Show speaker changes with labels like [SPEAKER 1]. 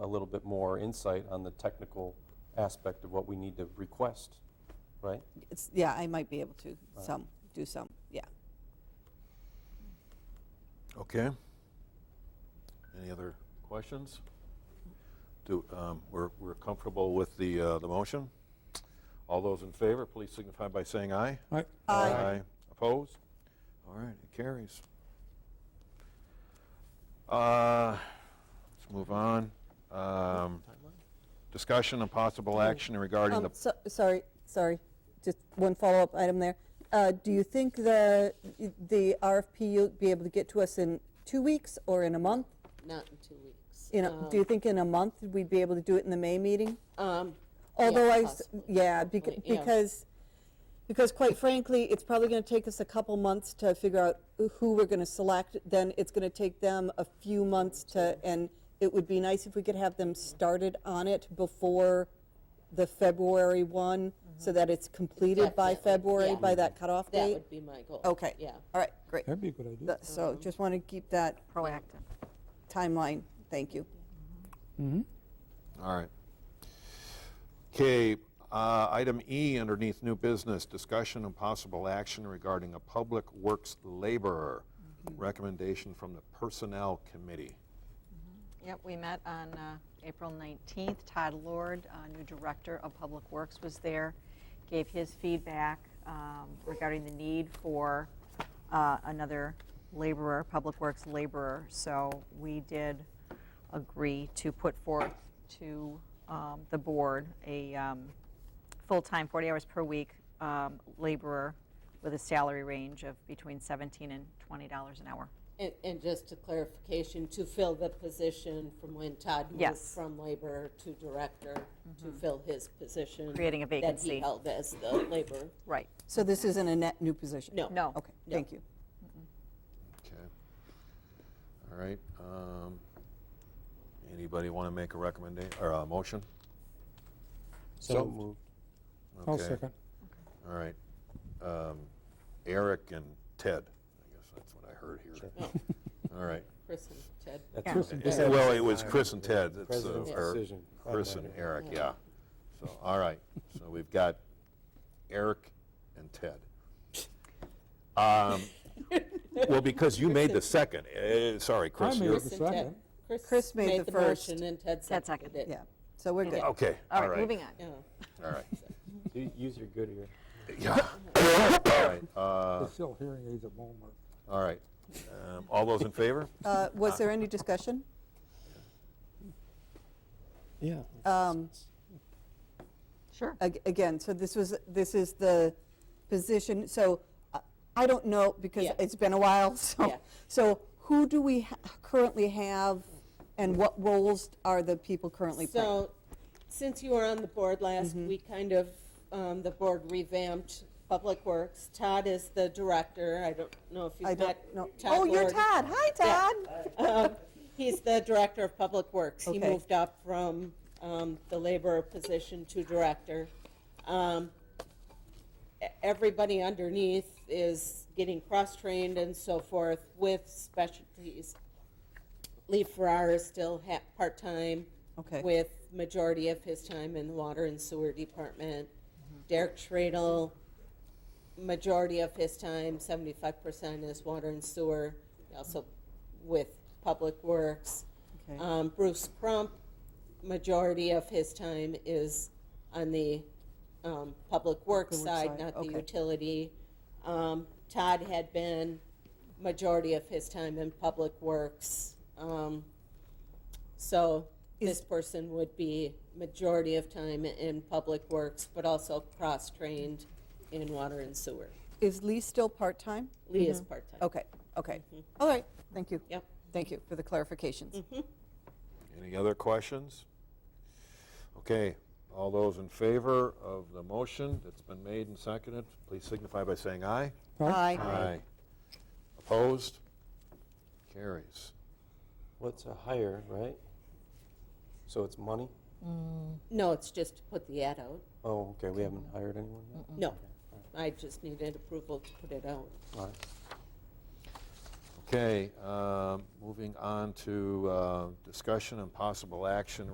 [SPEAKER 1] a little bit more insight on the technical aspect of what we need to request, right?
[SPEAKER 2] It's, yeah, I might be able to some, do some, yeah.
[SPEAKER 3] Okay. Any other questions? Do, um, we're, we're comfortable with the, uh, the motion? All those in favor, please signify by saying aye.
[SPEAKER 4] Aye.
[SPEAKER 2] Aye.
[SPEAKER 3] Opposed? All right, it carries. Uh, Let's move on. Um, Discussion and possible action regarding
[SPEAKER 5] Um,
[SPEAKER 3] the,
[SPEAKER 5] so- Sorry, sorry, just one follow-up item there. Uh, Do you think the, the RFP you'll be able to get to us in two weeks or in a month?
[SPEAKER 6] Not in two weeks.
[SPEAKER 5] You know, do you think in a month we'd be able to do it in the May meeting?
[SPEAKER 6] Um, yeah,
[SPEAKER 5] Although I, s-
[SPEAKER 6] possibly.
[SPEAKER 5] yeah, beca-
[SPEAKER 6] Wait, yeah.
[SPEAKER 5] because, because quite frankly, it's probably going to take us a couple months to figure out who we're going to select. Then it's going to take them a few months to, and it would be nice if we could have them started on it before the February one, so that it's completed by
[SPEAKER 6] Mm-hmm. Definitely,
[SPEAKER 5] February,
[SPEAKER 6] yeah.
[SPEAKER 5] by that cutoff
[SPEAKER 6] That
[SPEAKER 5] date.
[SPEAKER 6] would be my goal.
[SPEAKER 2] Okay.
[SPEAKER 6] Yeah. Mm-hmm.
[SPEAKER 2] All right, great.
[SPEAKER 4] That'd be a good idea.
[SPEAKER 2] Th- So just want to keep that
[SPEAKER 7] proactive.
[SPEAKER 2] timeline, thank you.
[SPEAKER 3] all right. Okay, item E underneath new business, discussion and possible action regarding a public works laborer. Recommendation from the Personnel Committee.
[SPEAKER 7] Yep, we met on uh, April 19th. Todd Lord, uh, new Director of Public Works, was there, gave his feedback um, regarding the need for uh, another laborer, Public Works laborer. So we did agree to put forth to um, the board a um, full-time, 40 hours per week um, laborer with a salary range of between 17 and $20 an hour.
[SPEAKER 6] And, and just a clarification, to fill the position from when Todd moved
[SPEAKER 7] Yes.
[SPEAKER 6] from labor to director, to fill his position.
[SPEAKER 7] Creating a
[SPEAKER 6] That he
[SPEAKER 7] vacancy.
[SPEAKER 6] held as the labor.
[SPEAKER 7] Right.
[SPEAKER 2] So this isn't a net new position?
[SPEAKER 6] No.
[SPEAKER 7] No.
[SPEAKER 2] Okay, thank you.
[SPEAKER 3] Okay. All right. um, Anybody want to make a recommendation, or a motion?
[SPEAKER 1] So moved.
[SPEAKER 4] I'll
[SPEAKER 3] Okay.
[SPEAKER 4] second.
[SPEAKER 3] All right. Um, Eric and Ted, I guess that's what I heard here.
[SPEAKER 6] Oh,
[SPEAKER 3] All right.
[SPEAKER 6] Chris and Ted.
[SPEAKER 1] That's
[SPEAKER 7] Yeah.
[SPEAKER 1] it.
[SPEAKER 3] It- Well, it was Chris and Ted. that's, uh,
[SPEAKER 4] President's
[SPEAKER 3] or
[SPEAKER 1] decision.
[SPEAKER 3] Chris and Eric, yeah. So, all right. So we've got Eric and Ted. Um, Well, because you made the second. eh, Sorry, Chris.
[SPEAKER 4] made
[SPEAKER 3] you're-
[SPEAKER 4] the
[SPEAKER 6] Chris and Ted.
[SPEAKER 4] second.
[SPEAKER 2] Chris made the first.
[SPEAKER 6] motion and Ted
[SPEAKER 7] Ted
[SPEAKER 6] seconded it.
[SPEAKER 2] Yeah, so we're good.
[SPEAKER 3] Okay,
[SPEAKER 7] All right, moving on.
[SPEAKER 6] Yeah.
[SPEAKER 3] All right.
[SPEAKER 1] U- Use your good ear.
[SPEAKER 3] Yeah. All right. uh,
[SPEAKER 4] It's still hearing aids at Walmart.
[SPEAKER 3] All right. Um, All those in favor?
[SPEAKER 2] Uh, Was there any discussion?
[SPEAKER 4] Yeah.
[SPEAKER 2] Um,
[SPEAKER 7] Sure.
[SPEAKER 2] Ag- Again, so this was, this is the position, so uh, I don't know, because
[SPEAKER 6] Yeah.
[SPEAKER 2] it's been a while, so,
[SPEAKER 6] Yeah.
[SPEAKER 2] so who do we ha- currently have, and what roles are the people currently playing?
[SPEAKER 6] So, since you were on the board last,
[SPEAKER 2] Mm-hmm.
[SPEAKER 6] we kind of, um, the board revamped Public Works. Todd is the director. I don't know if
[SPEAKER 2] I
[SPEAKER 6] you've
[SPEAKER 2] don't
[SPEAKER 6] met
[SPEAKER 2] know.
[SPEAKER 6] Todd
[SPEAKER 2] Oh, you're
[SPEAKER 6] Lord.
[SPEAKER 2] Todd, hi,
[SPEAKER 6] Yeah.
[SPEAKER 2] Todd.
[SPEAKER 6] Um, He's the director of Public Works. He
[SPEAKER 2] Okay.
[SPEAKER 6] moved up from um, the laborer position to director. Um, e- Everybody underneath is getting cross-trained and so forth with specialties. Lee Farrar is still ha- part-time.
[SPEAKER 2] Okay.
[SPEAKER 6] With majority of his time in the water and sewer department. Derek Schradel, majority of his time, seventy-five percent is water and sewer, also with Public Works.
[SPEAKER 2] Okay.
[SPEAKER 6] Um, Bruce Crump, majority of his time is on the, um, Public Works
[SPEAKER 2] Public Works
[SPEAKER 6] side,
[SPEAKER 2] side,
[SPEAKER 6] not the
[SPEAKER 2] okay.
[SPEAKER 6] utility. Um, Todd had been majority of his time in Public Works. Um, so this person would be majority of time in Public Works, but also cross-trained in water and sewer.
[SPEAKER 2] Is Lee still part-time?
[SPEAKER 6] Lee is part-time.
[SPEAKER 2] Mm-hmm. Okay, okay, all right, thank you.
[SPEAKER 6] Mm-hmm. Yep. Mm-hmm.
[SPEAKER 2] Thank you for the clarifications.
[SPEAKER 3] Any other questions? Okay, all those in favor of the motion that's been made and seconded, please signify by saying aye.
[SPEAKER 2] Aye.
[SPEAKER 3] Opposed? Carries.
[SPEAKER 1] What's a hire, right? So it's money?
[SPEAKER 6] No, it's just to put the ad out.
[SPEAKER 1] Oh, okay, we haven't hired anyone yet?
[SPEAKER 6] No, I just needed approval to put it out.
[SPEAKER 1] All right.
[SPEAKER 3] Okay, um, moving on to uh, discussion and possible action